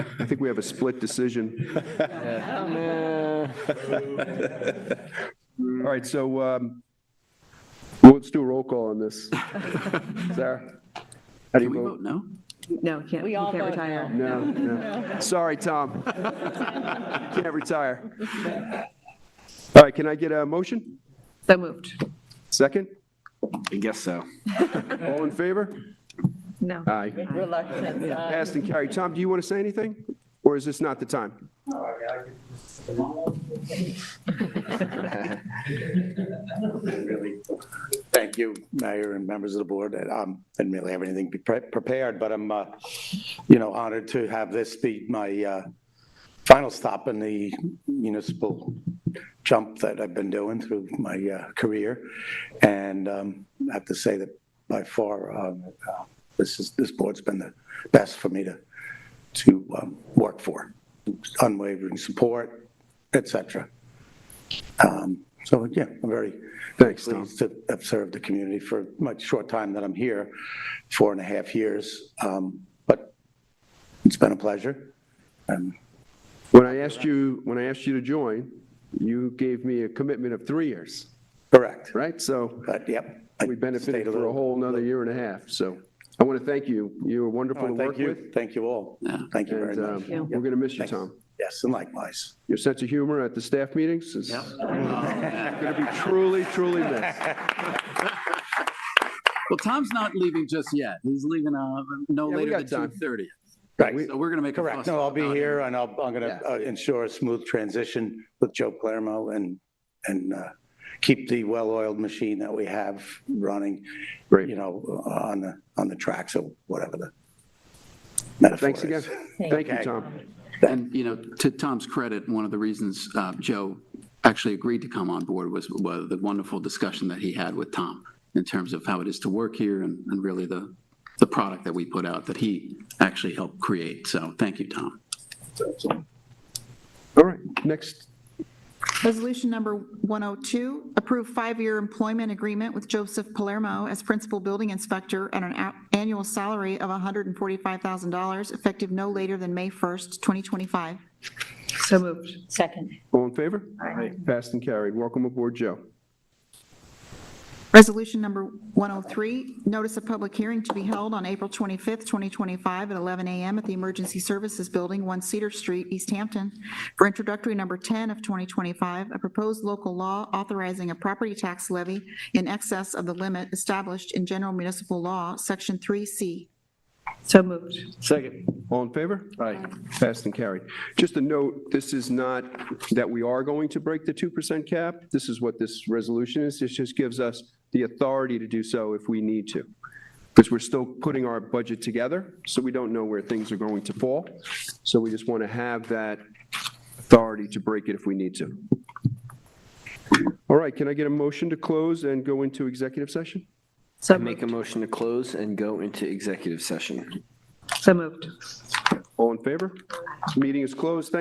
I think we have a split decision. All right, so um, well, let's do a roll call on this. Sarah? How do you vote? no? No, he can't, he We all can't vote retire. No, no. Sorry, Tom. Can't retire. All right, can I get a motion? So moved. Second? I guess so. All in favor? No. Aye. Reluctance. uh, Passed and carried. Tom, do you want to say anything? Or is this not the time? really, thank you, Mayor and members of the board. And, um, Didn't really have anything pre- prepared, but I'm, uh, you know, honored to have this be my uh, final stop in the municipal jump that I've been doing through my uh, career. And um, I have to say that by far, um, uh, this is, this board's been the best for me to, to um, work for. Unwavering support, et cetera. Um, So, yeah, I'm very, very Thanks, Tom. pleased to have served the community for my short time that I'm here, four and a half years. Um, But it's been a pleasure. Um, When I asked you, when I asked you to join, you gave me a commitment of three years, Correct. right? So But, yep. I we stayed benefited for a little- whole another year and a half. So I want to thank you. You were wonderful to Oh, work Thank with. you, thank you all. Yeah. Thank you very And uh, much. we're going to miss you, Thanks. Tom. Yes, and likewise. Your sense of humor at the staff meetings is going to be truly, truly missed. Well, Tom's not leaving just yet. He's leaving uh, no Yeah, we later got than time. 2:30. Right, So we're going to make a fuss. correct. No, I'll be about it. here and I'll, I'm going Yeah. to ensure a smooth transition with Joe Palermo and, and uh, keep the well-oiled machine that we have running, you Great. know, on the, on the tracks or whatever the metaphor Thanks again. is. Thank you, Okay. Tom. And, you know, to Tom's credit, one of the reasons uh, Joe actually agreed to come on board was, was the wonderful discussion that he had with Tom in terms of how it is to work here and, and really the, the product that we put out that he actually helped create. So thank you, Tom. All right, next. Resolution number 102, approve five-year employment agreement with Joseph Palermo as principal building inspector at an a- annual salary of $145,000 effective no later than May 1st, 2025. So moved. Second. All in favor? Aye. Passed and carried. Welcome aboard, Joe. Resolution number 103, notice of public hearing to be held on April 25th, 2025, at 11 a.m. at the Emergency Services Building, 1 Cedar Street, East Hampton, for introductory number 10 of 2025, a proposed local law authorizing a property tax levy in excess of the limit established in General Municipal Law, Section 3C. So moved. All in favor? Aye. Passed and carried. Just a note, this is not that we are going to break the 2% cap. This is what this resolution is. It just gives us the authority to do so if we need to. Because we're still putting our budget together, so we don't know where things are going to fall. So we just want to have that authority to break it if we need to. All right, can I get a motion to close and go into executive session? So Make a moved. motion to close and go into executive session. So moved. All in favor? Meeting is closed. Thank-